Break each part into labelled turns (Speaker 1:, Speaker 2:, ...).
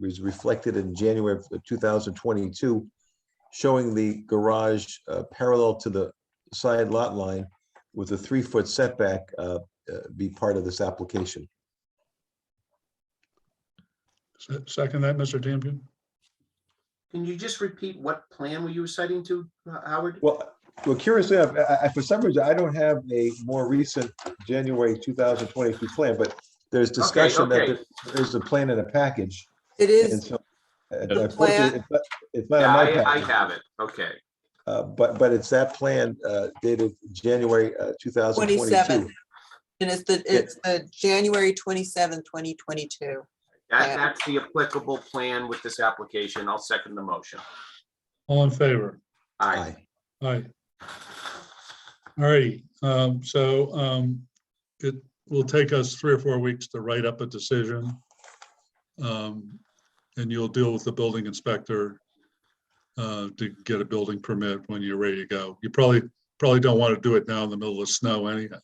Speaker 1: was reflected in January of 2022, showing the garage uh, parallel to the side lot line with a three-foot setback uh, uh, be part of this application.
Speaker 2: Se- Second that, Mr. Tamkin?
Speaker 3: Can you just repeat what plan were you citing to, Ho- Howard?
Speaker 1: Well, well, curiously, enough, I, I, for some reason, I don't have a more recent January 2022 plan, but there's discussion that
Speaker 3: okay.
Speaker 1: there- there's a plan in a package.
Speaker 4: It
Speaker 1: And
Speaker 4: is,
Speaker 1: so, uh,
Speaker 2: The
Speaker 1: unfortunately, it's not- it's not in
Speaker 3: Yeah,
Speaker 1: my
Speaker 3: I, I
Speaker 1: package,
Speaker 3: have it. Okay.
Speaker 1: uh, but, but it's that plan uh, dated January uh, 2022.
Speaker 4: 27th. and it's the, it's the January twenty-seventh, twenty twenty-two.
Speaker 3: That,
Speaker 4: Yeah.
Speaker 3: that's the applicable plan with this application. I'll second the motion.
Speaker 2: All in favor?
Speaker 3: Aye.
Speaker 1: Aye.
Speaker 2: Aye. All righty, um, so, um, it will take us three or four weeks to write up a decision. Um, and you'll deal with the building inspector uh, to get a building permit when you're ready to go. You probably, probably don't want to do it now in the middle of snow anyhow.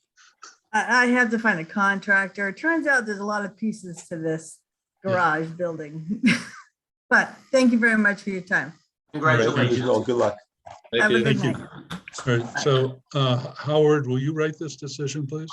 Speaker 5: I, I have to find a contractor. It turns out there's a lot of pieces to this
Speaker 2: Yeah.
Speaker 5: garage building. But thank you very much for your time.
Speaker 1: Well,
Speaker 3: Congratulations.
Speaker 1: Good luck.
Speaker 5: Have a good night.
Speaker 2: All right, so, uh, Howard, will you write this decision, please?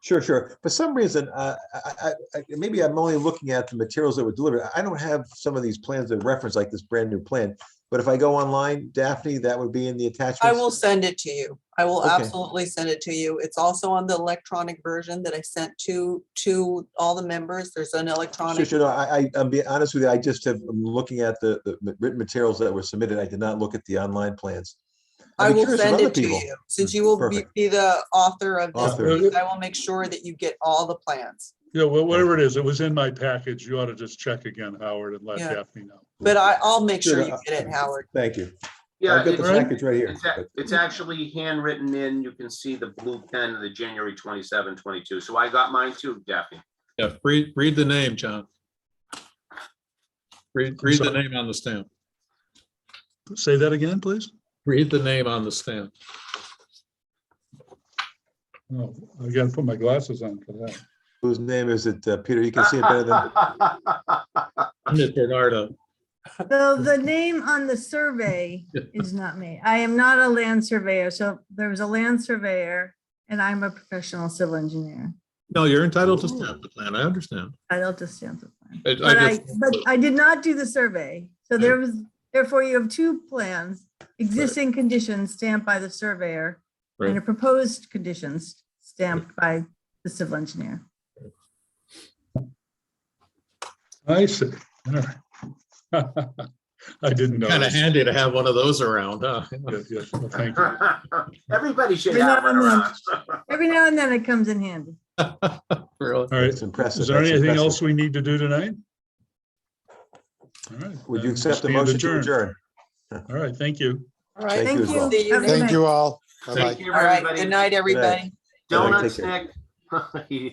Speaker 1: Sure, sure. For some reason, uh, I, I- I, maybe I'm only looking at the materials that were delivered. I don't have some of these plans in reference like this brand new plan. But if I go online, Daphne, that would be in the attachments.
Speaker 4: I will send it to you. I will
Speaker 1: Okay.
Speaker 4: absolutely send it to you. It's also on the electronic version that I sent to, to all the members. There's an
Speaker 1: Sure,
Speaker 4: electronic.
Speaker 1: sure. No, I, I, I'm being honest with you. I just have, I'm looking at the, the ma- written materials that were submitted. I did not look at the online plans. I'd
Speaker 4: I
Speaker 1: be
Speaker 4: will
Speaker 1: curious if
Speaker 4: send
Speaker 1: other
Speaker 4: it to
Speaker 1: people-
Speaker 4: you, since you will be,
Speaker 1: Perfect.
Speaker 4: be the author of this.
Speaker 1: Author.
Speaker 4: piece, I will make sure that you get all the plans.
Speaker 2: Yeah, well, whatever it is, it was in my package. You ought to just check again, Howard, and let
Speaker 4: Yeah.
Speaker 2: Daphne know.
Speaker 4: But I, I'll make sure
Speaker 1: Sure, uh,
Speaker 4: you
Speaker 1: I-
Speaker 4: get it, Howard.
Speaker 1: Thank you.
Speaker 3: Yeah,
Speaker 1: I've got the
Speaker 3: it's-
Speaker 1: package right here.
Speaker 3: it's a- it's actually handwritten in. You can see the blue pen of the January 27, 22. So I got mine too, Daphne.
Speaker 6: Yeah, read, read the name, John. Read, read the
Speaker 2: sorry.
Speaker 6: name on the stamp.
Speaker 2: Say that again, please?
Speaker 6: Read the name on the stamp.
Speaker 2: Oh, I gotta put my glasses on for that.
Speaker 1: Whose name is it? Uh, Peter, you can see it better than,
Speaker 6: It's Bernardo.
Speaker 5: So the name on the survey is not me. I am not a land surveyor. So there was a land surveyor and I'm a professional civil engineer.
Speaker 6: No, you're entitled to stamp the plan. I understand.
Speaker 5: I don't just stand for plan.
Speaker 6: Oh. I- I
Speaker 5: But I,
Speaker 6: just-
Speaker 5: but I did not do the survey. So there was, therefore you have two plans, existing conditions stamped by the surveyor and a proposed conditions stamped by the civil engineer.
Speaker 2: I see. All right. I didn't know.
Speaker 6: Kind of
Speaker 2: this.
Speaker 6: handy to have one of those around, huh?
Speaker 2: Yeah, yeah, well, Thank you.
Speaker 3: Everybody should
Speaker 5: We're
Speaker 3: have
Speaker 5: not
Speaker 3: one
Speaker 5: on
Speaker 3: around.
Speaker 5: Every now and then it comes in handy.
Speaker 6: Really?
Speaker 2: All right.
Speaker 1: it's impressive.
Speaker 2: Is there
Speaker 1: That's
Speaker 2: anything
Speaker 1: impressive.
Speaker 2: else we need to do tonight? All right.
Speaker 1: Would you
Speaker 2: then
Speaker 1: accept the
Speaker 2: stand
Speaker 1: motion to
Speaker 2: adjourned.
Speaker 1: adjourn?
Speaker 2: All right, thank you.
Speaker 4: All right.
Speaker 1: Thank you as well.
Speaker 4: See you
Speaker 5: Have a
Speaker 4: next-
Speaker 5: good
Speaker 7: Thank
Speaker 5: night.
Speaker 7: you all. Bye-bye.
Speaker 3: Thank you,
Speaker 4: All right.
Speaker 3: everybody.
Speaker 4: Good night, everybody.
Speaker 3: Donuts, Nick.